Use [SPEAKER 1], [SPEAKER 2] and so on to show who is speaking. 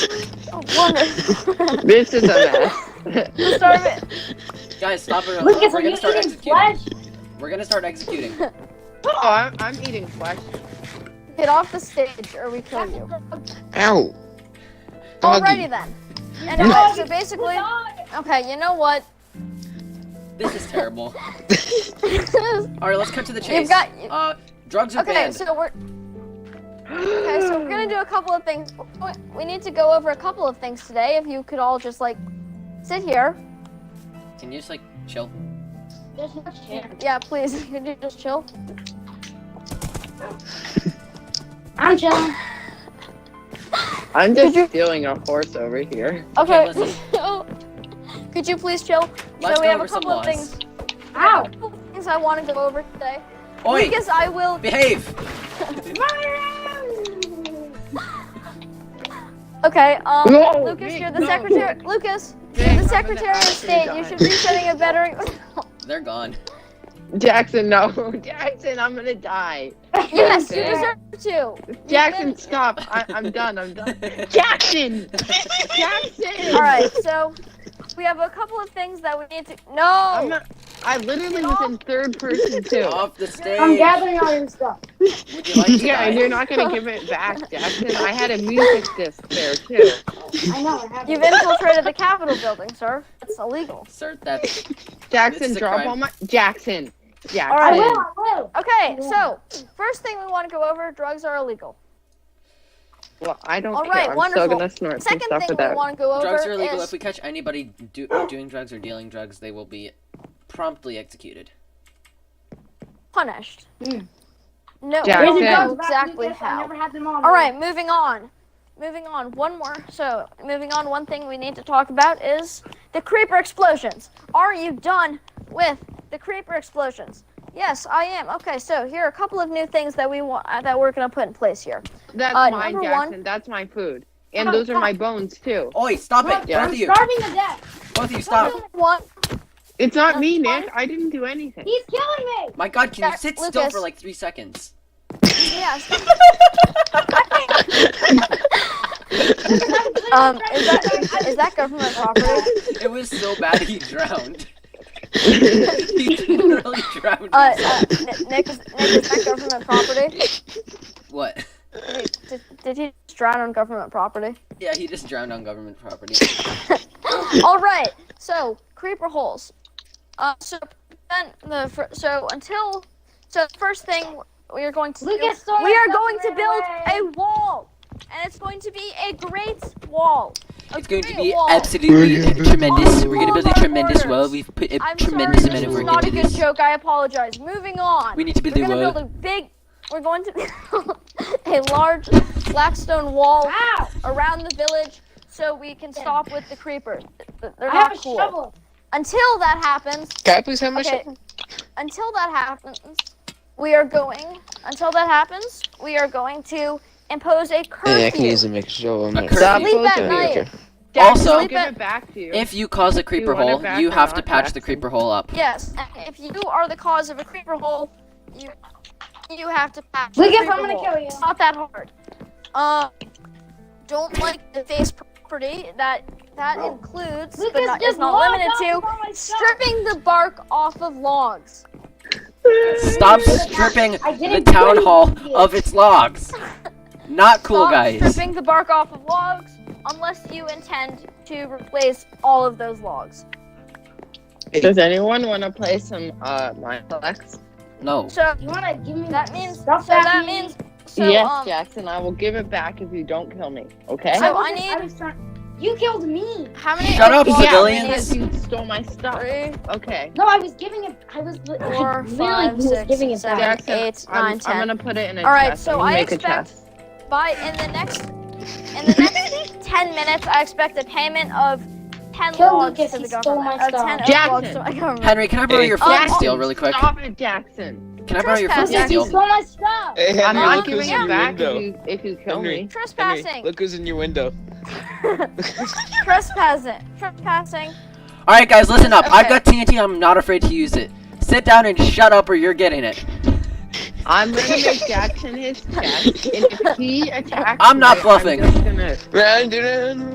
[SPEAKER 1] One.
[SPEAKER 2] This is a mess.
[SPEAKER 1] Starve it.
[SPEAKER 3] Guys, stop it.
[SPEAKER 4] Lucas,
[SPEAKER 3] We're
[SPEAKER 4] are you
[SPEAKER 3] gonna start
[SPEAKER 4] eating
[SPEAKER 3] executing.
[SPEAKER 4] flesh?
[SPEAKER 3] We're gonna start executing.
[SPEAKER 2] oh, I'm, I'm eating flesh.
[SPEAKER 1] Get off the stage or we kill you.
[SPEAKER 2] Ow.
[SPEAKER 1] Alrighty then. Anyway, so basically, okay, you know what?
[SPEAKER 3] This is terrible.
[SPEAKER 1] You've
[SPEAKER 3] All right, let's cut to the chase.
[SPEAKER 1] got.
[SPEAKER 3] Uh, drugs are
[SPEAKER 1] Okay,
[SPEAKER 3] banned.
[SPEAKER 1] so we're okay, so we're gonna do a couple of things. We need to go over a couple of things today. If you could all just like sit here,
[SPEAKER 3] Can you just like chill?
[SPEAKER 4] There's no chance.
[SPEAKER 1] yeah, please. Could you just chill?
[SPEAKER 4] I'm chilling.
[SPEAKER 2] I'm just stealing a horse over here.
[SPEAKER 3] Okay,
[SPEAKER 1] Okay. could you please chill?
[SPEAKER 3] Let's
[SPEAKER 1] so we
[SPEAKER 3] go
[SPEAKER 1] have
[SPEAKER 3] over
[SPEAKER 1] a
[SPEAKER 3] some
[SPEAKER 1] couple of
[SPEAKER 3] laws.
[SPEAKER 1] things.
[SPEAKER 4] Ow!
[SPEAKER 1] couple of things I want to go over today.
[SPEAKER 3] Oi,
[SPEAKER 1] Lucas, I will.
[SPEAKER 3] behave.
[SPEAKER 1] Okay, um,
[SPEAKER 2] No,
[SPEAKER 1] Lucas,
[SPEAKER 2] Nick,
[SPEAKER 1] you're the
[SPEAKER 2] no.
[SPEAKER 1] secretary. Lucas,
[SPEAKER 2] Nick,
[SPEAKER 1] you're
[SPEAKER 2] I'm
[SPEAKER 1] the
[SPEAKER 2] an
[SPEAKER 1] secretary of state. You
[SPEAKER 2] astronaut.
[SPEAKER 1] should be setting a better.
[SPEAKER 3] They're gone.
[SPEAKER 2] Jackson, no. Jackson, I'm gonna die.
[SPEAKER 1] yes, you
[SPEAKER 2] Jackson.
[SPEAKER 1] deserve to. You've
[SPEAKER 2] Jackson,
[SPEAKER 1] been-
[SPEAKER 2] stop. I, I'm done. I'm done. Jackson! Jackson!
[SPEAKER 1] All right, so we have a couple of things that we need to.
[SPEAKER 2] I'm
[SPEAKER 1] No.
[SPEAKER 2] not, I literally was in third person too.
[SPEAKER 3] Off the stage.
[SPEAKER 4] I'm gathering all your stuff.
[SPEAKER 3] Would you like to
[SPEAKER 2] Yeah,
[SPEAKER 3] die?
[SPEAKER 2] and you're not gonna give it back, Jackson. I had a music disc there too.
[SPEAKER 4] I know, I have
[SPEAKER 1] You've infiltrated the Capitol building, sir. It's illegal.
[SPEAKER 3] Insert that. This
[SPEAKER 2] Jackson,
[SPEAKER 3] is a
[SPEAKER 2] drop
[SPEAKER 3] crime.
[SPEAKER 2] all my Jackson. Jackson.
[SPEAKER 1] right.
[SPEAKER 4] I will, I will.
[SPEAKER 1] Okay, so first thing we want to go over: drugs are illegal.
[SPEAKER 2] Well, I don't
[SPEAKER 1] All
[SPEAKER 2] care.
[SPEAKER 1] right,
[SPEAKER 2] I'm
[SPEAKER 1] wonderful.
[SPEAKER 2] still gonna snort some
[SPEAKER 1] Second
[SPEAKER 2] stuff
[SPEAKER 1] thing
[SPEAKER 2] for
[SPEAKER 1] we
[SPEAKER 2] that.
[SPEAKER 1] want to go over
[SPEAKER 3] Drugs are illegal.
[SPEAKER 1] is
[SPEAKER 3] If we catch anybody do- doing drugs or dealing drugs, they will be promptly executed.
[SPEAKER 1] punished.
[SPEAKER 2] Hmm.
[SPEAKER 4] Mm.
[SPEAKER 1] No,
[SPEAKER 2] Jack-
[SPEAKER 4] There's
[SPEAKER 1] we
[SPEAKER 4] a
[SPEAKER 1] don't
[SPEAKER 2] Jackson.
[SPEAKER 4] dog
[SPEAKER 1] know
[SPEAKER 4] about
[SPEAKER 1] exactly
[SPEAKER 4] Lucas, I
[SPEAKER 1] how.
[SPEAKER 4] never had them all.
[SPEAKER 1] All right, moving on. Moving on. One more. So, moving on. One thing we need to talk about is the creeper explosions. Are you done with the creeper explosions? Yes, I am. Okay, so here are a couple of new things that we want uh, that we're gonna put in place here.
[SPEAKER 2] That's
[SPEAKER 1] Uh,
[SPEAKER 2] mine,
[SPEAKER 1] number one-
[SPEAKER 2] Jackson. That's my food. And
[SPEAKER 4] Oh,
[SPEAKER 2] those are my
[SPEAKER 4] fuck.
[SPEAKER 2] bones too.
[SPEAKER 3] Oi, stop it.
[SPEAKER 2] Yeah.
[SPEAKER 3] Both
[SPEAKER 4] I'm
[SPEAKER 3] of you.
[SPEAKER 4] starving to death.
[SPEAKER 3] Both of you, stop.
[SPEAKER 1] Number One.
[SPEAKER 2] It's not me,
[SPEAKER 1] That's
[SPEAKER 2] Nick. I didn't do anything.
[SPEAKER 4] He's killing me.
[SPEAKER 3] My god, can you
[SPEAKER 1] Jack-
[SPEAKER 3] sit still
[SPEAKER 1] Lucas.
[SPEAKER 3] for like three seconds?
[SPEAKER 1] Yes.
[SPEAKER 4] I'm literally
[SPEAKER 1] Um,
[SPEAKER 4] starving
[SPEAKER 1] is
[SPEAKER 4] to
[SPEAKER 1] that
[SPEAKER 4] death.
[SPEAKER 1] is that government property?
[SPEAKER 3] It was so bad he drowned. he literally drowned.
[SPEAKER 1] Uh,
[SPEAKER 3] himself.
[SPEAKER 1] uh Nick, Nick, is, Nick, is that government property?
[SPEAKER 3] what?
[SPEAKER 1] Did, did he just drown on government property?
[SPEAKER 3] Yeah, he just drowned on government property.
[SPEAKER 1] All right. So creeper holes. Uh, so prevent the fir- so until so the first thing we are going to do-
[SPEAKER 4] Lucas stole
[SPEAKER 1] we
[SPEAKER 4] my
[SPEAKER 1] are
[SPEAKER 4] stuff
[SPEAKER 1] going
[SPEAKER 4] and
[SPEAKER 1] to
[SPEAKER 4] ran
[SPEAKER 1] build
[SPEAKER 4] away.
[SPEAKER 1] a wall, and it's going to be a great wall. A
[SPEAKER 3] It's going to
[SPEAKER 1] great
[SPEAKER 3] be
[SPEAKER 1] wall.
[SPEAKER 3] absolutely tremendous.
[SPEAKER 1] Oh,
[SPEAKER 3] We're gonna build a
[SPEAKER 1] Lord.
[SPEAKER 3] tremendous well. We've put a
[SPEAKER 1] I'm
[SPEAKER 3] tremendous
[SPEAKER 1] sorry,
[SPEAKER 3] amount
[SPEAKER 1] this
[SPEAKER 3] of
[SPEAKER 1] is
[SPEAKER 3] work
[SPEAKER 1] not a
[SPEAKER 3] into
[SPEAKER 1] good
[SPEAKER 3] this.
[SPEAKER 1] joke. I apologize. Moving on.
[SPEAKER 3] We need to
[SPEAKER 1] We're
[SPEAKER 3] build a
[SPEAKER 1] gonna
[SPEAKER 3] well.
[SPEAKER 1] build a big. We're going to build a large black stone wall
[SPEAKER 4] Ow!
[SPEAKER 1] around the village so we can stop with the creepers. Th- They're
[SPEAKER 4] I have
[SPEAKER 1] not
[SPEAKER 4] a
[SPEAKER 1] cool.
[SPEAKER 4] shovel.
[SPEAKER 1] Until that happens,
[SPEAKER 2] Can I please have my
[SPEAKER 1] Okay. Until that happens, we are going. Until that happens, we are going to impose a curfew.
[SPEAKER 5] Yeah, I can use a mixture
[SPEAKER 3] A
[SPEAKER 5] of them.
[SPEAKER 3] curfew.
[SPEAKER 2] Stop
[SPEAKER 1] Sleep at
[SPEAKER 2] posing.
[SPEAKER 1] night.
[SPEAKER 2] Jackson,
[SPEAKER 3] Also-
[SPEAKER 2] I'll give it back to you.
[SPEAKER 3] If you cause a creeper
[SPEAKER 2] want it
[SPEAKER 3] hole,
[SPEAKER 2] back
[SPEAKER 3] you
[SPEAKER 2] or
[SPEAKER 3] have to
[SPEAKER 2] not,
[SPEAKER 3] patch the
[SPEAKER 2] Jackson?
[SPEAKER 3] creeper hole up.
[SPEAKER 1] yes, and if you are the cause of a creeper hole, you you have to patch. the
[SPEAKER 4] Lucas, I'm
[SPEAKER 1] creeper
[SPEAKER 4] gonna
[SPEAKER 1] hole.
[SPEAKER 4] kill you.
[SPEAKER 1] It's not that hard. Uh, don't like the face property. That that includes, but
[SPEAKER 4] Lucas
[SPEAKER 1] not, is
[SPEAKER 4] just
[SPEAKER 1] not
[SPEAKER 4] logged
[SPEAKER 1] limited
[SPEAKER 4] off
[SPEAKER 1] to
[SPEAKER 4] of all my stuff.
[SPEAKER 1] stripping the bark off of logs.
[SPEAKER 3] Stop stripping
[SPEAKER 4] I
[SPEAKER 3] the
[SPEAKER 4] didn't
[SPEAKER 3] town
[SPEAKER 4] do
[SPEAKER 3] hall
[SPEAKER 4] it.
[SPEAKER 3] of its logs. Not cool,
[SPEAKER 1] Stop
[SPEAKER 3] guys.
[SPEAKER 1] Stripping the bark off of logs unless you intend to replace all of those logs.
[SPEAKER 2] Does anyone want to play some uh Mineplex?
[SPEAKER 3] No.
[SPEAKER 1] So
[SPEAKER 4] You wanna give me
[SPEAKER 1] that
[SPEAKER 4] my
[SPEAKER 1] means so
[SPEAKER 4] stuff back,
[SPEAKER 1] that
[SPEAKER 4] please?
[SPEAKER 1] means so
[SPEAKER 2] yes,
[SPEAKER 1] um
[SPEAKER 2] Jackson. I will give it back if you don't kill me. Okay.
[SPEAKER 1] So- I
[SPEAKER 4] wasn't-
[SPEAKER 1] need-
[SPEAKER 4] was trying- You killed me.
[SPEAKER 1] how many
[SPEAKER 3] Shut up,
[SPEAKER 1] logs
[SPEAKER 2] yeah,
[SPEAKER 1] do we need?
[SPEAKER 3] civilians.
[SPEAKER 2] because you stole my stuff.
[SPEAKER 1] Three,
[SPEAKER 2] Okay.
[SPEAKER 4] No, I was giving it. I was. li- I
[SPEAKER 1] four,
[SPEAKER 4] literally
[SPEAKER 1] five,
[SPEAKER 4] was
[SPEAKER 1] six,
[SPEAKER 4] giving it
[SPEAKER 1] seven,
[SPEAKER 4] back.
[SPEAKER 2] Jackson,
[SPEAKER 1] eight,
[SPEAKER 2] I'm,
[SPEAKER 1] nine,
[SPEAKER 2] I'm
[SPEAKER 1] ten.
[SPEAKER 2] gonna put it in a
[SPEAKER 1] All right,
[SPEAKER 2] chest.
[SPEAKER 1] so
[SPEAKER 2] I'm gonna
[SPEAKER 1] I
[SPEAKER 2] make
[SPEAKER 1] expect-
[SPEAKER 2] a chest.
[SPEAKER 1] By in the next in the next ten minutes I expect a payment of ten
[SPEAKER 4] Kill
[SPEAKER 1] logs
[SPEAKER 4] Lucas,
[SPEAKER 1] to the
[SPEAKER 4] he stole
[SPEAKER 1] government.
[SPEAKER 4] my
[SPEAKER 1] of ten
[SPEAKER 4] stuff.
[SPEAKER 1] logs
[SPEAKER 2] Jackson.
[SPEAKER 1] to my government.
[SPEAKER 3] Henry, can I borrow
[SPEAKER 5] Hey.
[SPEAKER 3] your flint
[SPEAKER 1] Oh,
[SPEAKER 3] and steel really quick?
[SPEAKER 2] Stop it, Jackson.
[SPEAKER 3] Can I borrow your flint and
[SPEAKER 4] Lucas,
[SPEAKER 1] Trespassing.
[SPEAKER 4] you
[SPEAKER 3] steel?
[SPEAKER 4] stole my stuff.
[SPEAKER 5] Hey,
[SPEAKER 2] I'm
[SPEAKER 1] not
[SPEAKER 5] Henry,
[SPEAKER 2] not
[SPEAKER 5] look who's
[SPEAKER 2] giving
[SPEAKER 1] giving
[SPEAKER 5] in
[SPEAKER 2] it
[SPEAKER 5] your
[SPEAKER 2] back
[SPEAKER 5] window.
[SPEAKER 2] if you, if you kill
[SPEAKER 5] Henry.
[SPEAKER 2] me.
[SPEAKER 5] Henry,
[SPEAKER 1] Trespassing.
[SPEAKER 5] look who's in your window.
[SPEAKER 1] Trespassing. Trespassing.
[SPEAKER 3] All right, guys, listen up. I've
[SPEAKER 1] Okay.
[SPEAKER 3] got TNT. I'm not afraid to use it. Sit down and shut up, or you're getting it.
[SPEAKER 2] I'm gonna make Jackson his check, and if he attacks
[SPEAKER 3] I'm not
[SPEAKER 2] me,
[SPEAKER 3] bluffing.
[SPEAKER 2] I'm just gonna
[SPEAKER 5] Brandon.